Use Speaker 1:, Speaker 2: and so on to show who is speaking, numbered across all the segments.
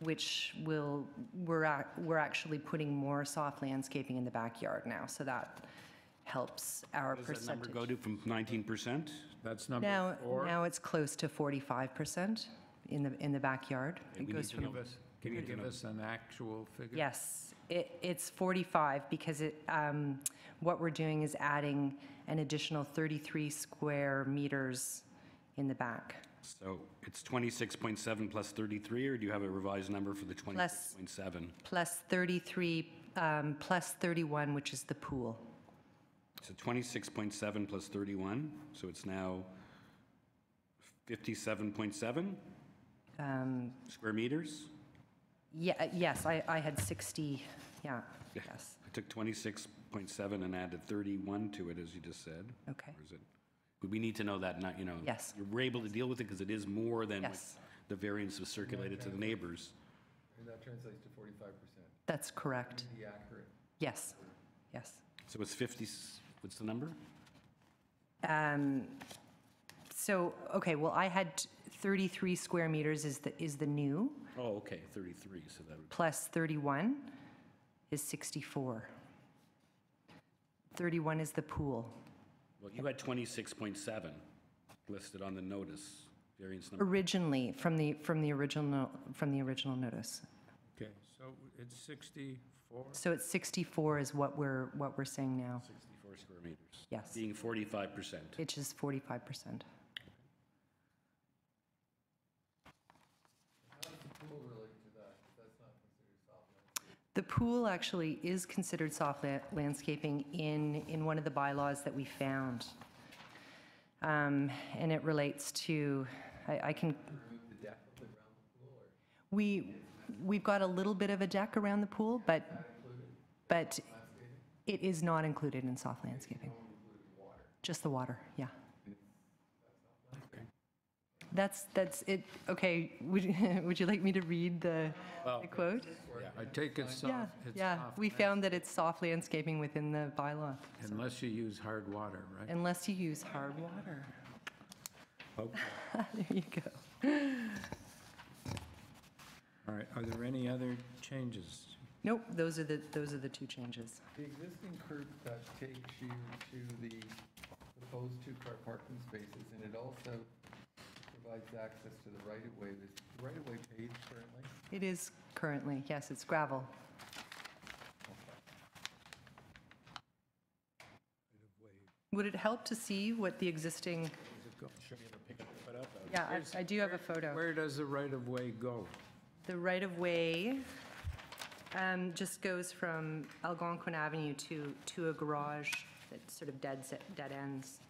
Speaker 1: which will, we're, ac- we're actually putting more soft landscaping in the backyard now, so that helps our
Speaker 2: Does that number go
Speaker 1: percentage.
Speaker 2: to from 19%?
Speaker 3: That's number
Speaker 1: Now,
Speaker 3: four.
Speaker 1: now it's close to 45% in the, in the backyard.
Speaker 2: we
Speaker 1: It goes
Speaker 2: need to
Speaker 1: from
Speaker 2: know- we
Speaker 3: Can you
Speaker 2: need to
Speaker 3: give
Speaker 2: know.
Speaker 3: us an actual figure?
Speaker 1: Yes, it, it's 45 because it, um, what we're doing is adding an additional 33 square meters in the back.
Speaker 2: So it's 26.7 plus 33, or do you have a revised number for the 26.7?
Speaker 1: Plus 33, um, plus 31, which is the pool.
Speaker 2: So 26.7 plus 31, so it's now 57.7
Speaker 1: Um,
Speaker 2: square meters?
Speaker 1: yeah, uh, yes, I, I had 60, yeah,
Speaker 2: Yeah.
Speaker 1: yes,
Speaker 2: I took 26.7 and added 31 to it, as you just said.
Speaker 1: okay.
Speaker 2: Or is it, would we need to know that, not, you know?
Speaker 1: Yes.
Speaker 2: We're able to deal with it because it is more than what
Speaker 1: Yes.
Speaker 2: the variance was circulated to the neighbors.
Speaker 4: And that translates to forty-five percent.
Speaker 1: That's correct.
Speaker 4: Be accurate.
Speaker 1: Yes, yes.
Speaker 2: So it's 50, s- what's the number?
Speaker 1: Um, so, okay, well, I had 33 square meters is the, is the new,
Speaker 2: Oh, okay, 33, so that would,
Speaker 1: plus 31 is 64. 31 is the pool.
Speaker 2: well, you had 26.7 listed on the notice, variance number.
Speaker 1: Originally, from the, from the original, from the original notice.
Speaker 3: Okay, so it's 64?
Speaker 1: So it's 64 is what we're, what we're saying now,
Speaker 2: 64 square meters,
Speaker 1: yes,
Speaker 2: being 45%.
Speaker 1: which is 45%. The pool actually is considered soft la- landscaping in, in one of the bylaws that we found. Um, And it relates to, I I can. We, we've got a little bit of a deck around the pool, but, but it is not included in soft landscaping. Just the water, yeah. That's, that's it, okay, would, you- would you like me to read the
Speaker 3: Well,
Speaker 1: the quote?
Speaker 3: I take it's
Speaker 1: Yeah,
Speaker 3: soft, it's
Speaker 1: yeah,
Speaker 3: soft
Speaker 1: we found that it's soft landscaping within the bylaw,
Speaker 3: unless you use hard water, right?
Speaker 1: unless you use hard water.
Speaker 3: Okay.
Speaker 1: There you go.
Speaker 3: All right, are there any other changes?
Speaker 1: Nope, those are the, those are the two changes.
Speaker 4: The existing curb cut takes you to the proposed two-car parking spaces, and it also provides access to the right-of-way. Is the right-of-way paid currently?
Speaker 1: It is currently, yes, it's gravel. Would it help to see what the existing? Yeah, I- I do have a photo.
Speaker 3: Where does the right-of-way go?
Speaker 1: The right-of-way um, just goes from Algonquin Avenue to, to a garage that sort of dead, dead ends.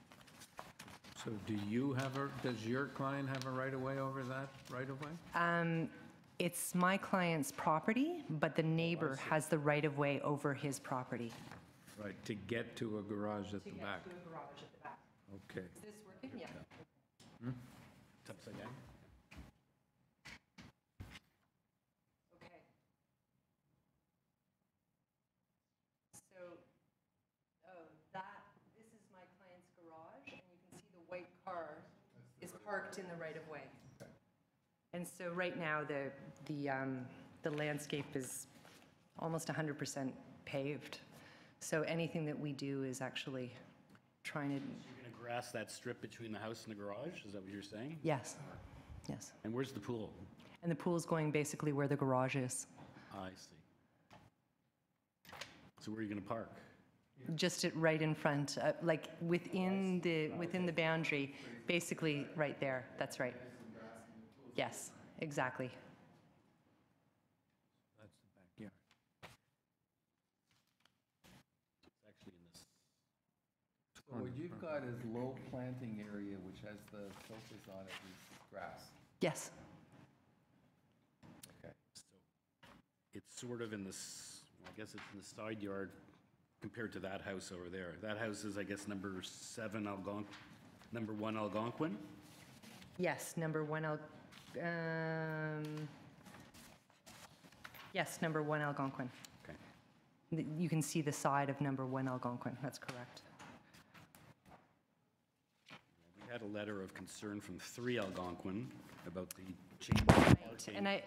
Speaker 3: So do you have a, does your client have a right-of-way over that right-of-way?
Speaker 1: Um, It's my client's property, but the neighbor has the right-of-way over his property.
Speaker 3: Right, to get to a garage at the back? Okay.
Speaker 1: Is this working? Yeah.
Speaker 2: It's upside down.
Speaker 1: Okay. So, oh, that, this is my client's garage, and you can see the white car is parked in the right-of-way. And so right now, the, the, um, the landscape is almost 100% paved. So anything that we do is actually trying to,
Speaker 2: You're going to grass that strip between the house and the garage, is that what you're saying?
Speaker 1: yes, yes.
Speaker 2: And where's the pool?
Speaker 1: And the pool's going basically where the garage is,
Speaker 2: Ah, I see. So where are you going to park?
Speaker 1: just it right in front, uh, like within the, within the boundary, basically right there, that's right. Yes, exactly.
Speaker 3: That's the backyard.
Speaker 2: It's actually in this.
Speaker 4: So what you've got is low planting area, which has the focus on it is grass.
Speaker 1: Yes,
Speaker 2: It's sort of in this, I guess it's in the side yard compared to that house over there. That house is, I guess, number seven Algonquin, number one Algonquin?
Speaker 1: yes, number one, Al- um, yes, number one Algonquin.
Speaker 2: Okay.
Speaker 1: Th- You can see the side of number one Algonquin, that's correct.
Speaker 2: We had a letter of concern from three Algonquin about the change in parking.
Speaker 1: And I,